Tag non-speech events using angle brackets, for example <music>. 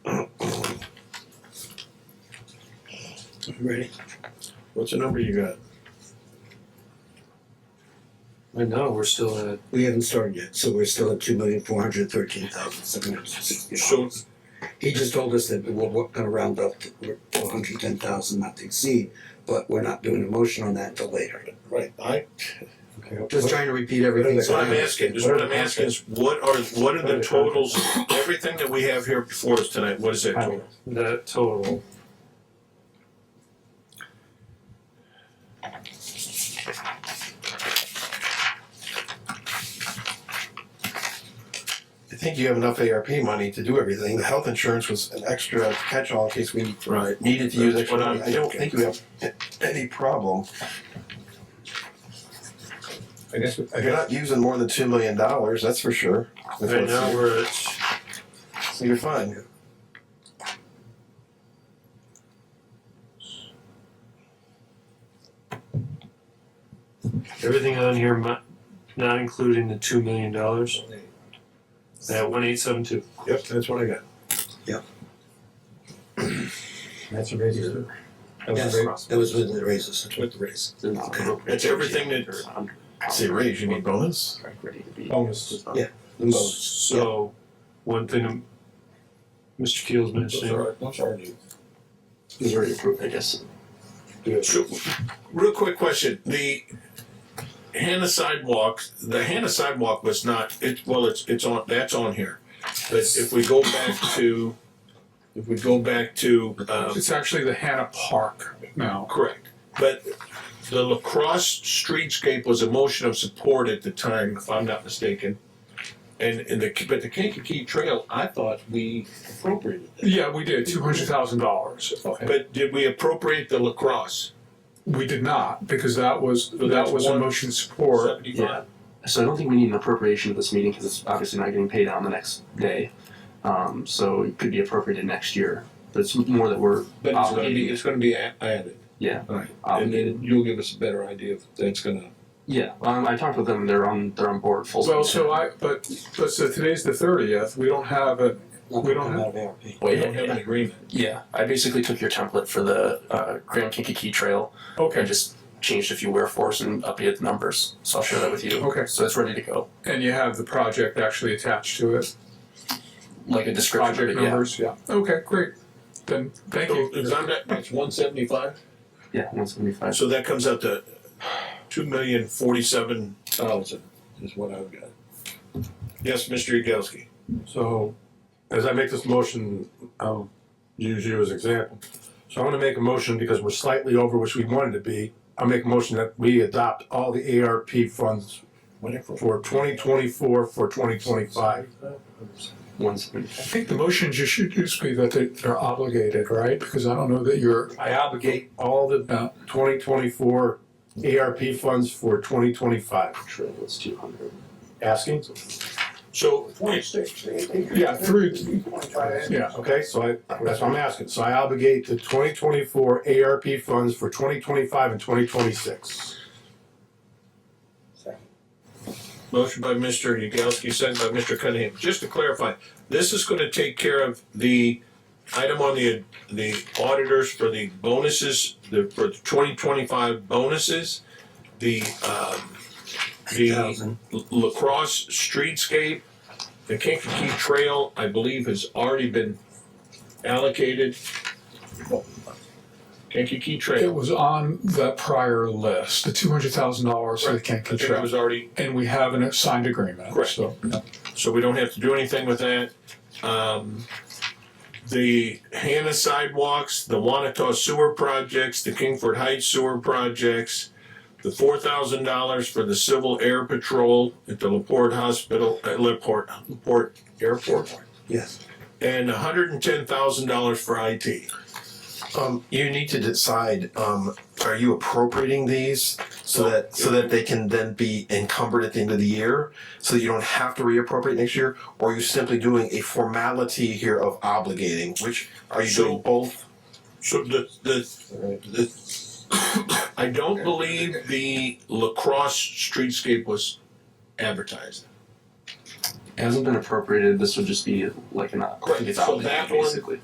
Ready? What's the number you got? Right now, we're still at, We haven't started yet, so we're still at two million four hundred thirteen thousand seven hundred sixty. So, He just told us that we're wa- gonna round up to four hundred ten thousand, not to exceed, but we're not doing a motion on that until later. right, I, Just trying to repeat everything. that's what I'm asking, just what I'm asking is, what are, what are the totals, everything that we have here before us tonight, what is that total? the total, I think you have enough ARP money to do everything. The health insurance was an extra catch-all in case we Right. needed to use That's extra what I'm money. I don't think you have any problem. I guess, I If you're guess, not using more than two million dollars, that's for sure. That's right what's- now, we're at, So you're fine. everything on here, mi- not including the two million dollars. At one eight seven two. Yep, that's what I got. that's a razor. That was Yes, a razor. that was with the raises. With the raise. Okay. That's everything that, Say raise, you mean bonus? Bonus. So, one thing um, Mr. Keel's mentioning, He's already approved. I guess. So, real quick question, the Hannah sidewalk, the Hannah sidewalk was not, it, well, it's, it's on, that's on here. But if we go back to, if we go back to, um, It's actually the Hannah Park now. Correct. But the lacrosse streetscape was a motion of support at the time, if I'm not mistaken. And, and the, but the Kankakee Trail, I thought we appropriated that. Yeah, we did, two hundred thousand dollars. But did we appropriate the lacrosse? We did not, because that was, So that that's was a one- motion of support. Seventy-five? So I don't think we need an appropriation at this meeting because it's obviously not getting paid out the next day. Um, so it could be appropriated next year, but it's more that we're But it's gonna be, obligated. it's gonna be a- added. Yeah. Alright, and obligated. then you'll give us a better idea if that's gonna. Yeah, um, I talked with them. They're on. They're on board. Full. Well, steam so I, but, but so today's the thirtieth, we don't have a, We don't have- Out of ARP. We ahead. don't have an agreement. Yeah, I basically took your template for the uh, Grand Kinkakee Trail and okay, just changed a few wear force and updated the numbers. So I'll share that with you. Okay. So it's ready to go, and you have the project actually attached to it, like a description. project but yeah. numbers, yeah. Okay, great, then, thank So you. if I'm not, that's one seventy-five? Yeah, one seventy five. So that comes out to two million forty-seven thousand is what I've got. Yes, Mr. Yagowski. So, as I make this motion, I'll use you as an example. So I'm gonna make a motion because we're slightly over which we wanted to be. I'll make a motion that we adopt all the ARP funds for twenty twenty-four, for twenty twenty-five. One seventy I five. think the motion just should just be that they- they're obligated, right? Because I don't know that you're, I obligate all Yeah. the twenty twenty-four ARP funds for twenty twenty-five. Trail was two hundred. Asking? So yeah, through, yeah, Okay, so I, that's what I'm asking. So I obligate the twenty twenty-four ARP funds for twenty twenty-five and twenty twenty-six. Motion by Mr. Yagowski, second by Mr. Cunningham. Just to clarify, this is gonna take care of the item on the, the auditors for the bonuses, the, for the twenty twenty-five bonuses, the, um, the Thousand. lacrosse streetscape, the Kankakee Trail, I believe, has already been allocated. Kankakee it Trail, was on the prior list, the two hundred thousand dollars for the I Kankakee think it Trail. was already And we have an signed agreement, Correct. so. so we don't have to do anything with that. Um, the Hannah sidewalks, the Wanata sewer projects, the Kingford Heights sewer projects, the four thousand dollars for the Civil Air Patrol at the Laporte Hospital, at Laporte, Laporte Airport, Yes. and hundred and ten thousand dollars for IT. Um, you need to decide, um, are you appropriating these so that, so that they can then be encumbered at the end of the year? So that you don't have to reappropriate next year, or are you simply doing a formality here of obligating, which, are you So- doing both? So the, the, the, <coughs> I don't believe the lacrosse streetscape was advertised. It hasn't been appropriated. This would just be like an. I think it's So obligated, that one- basically.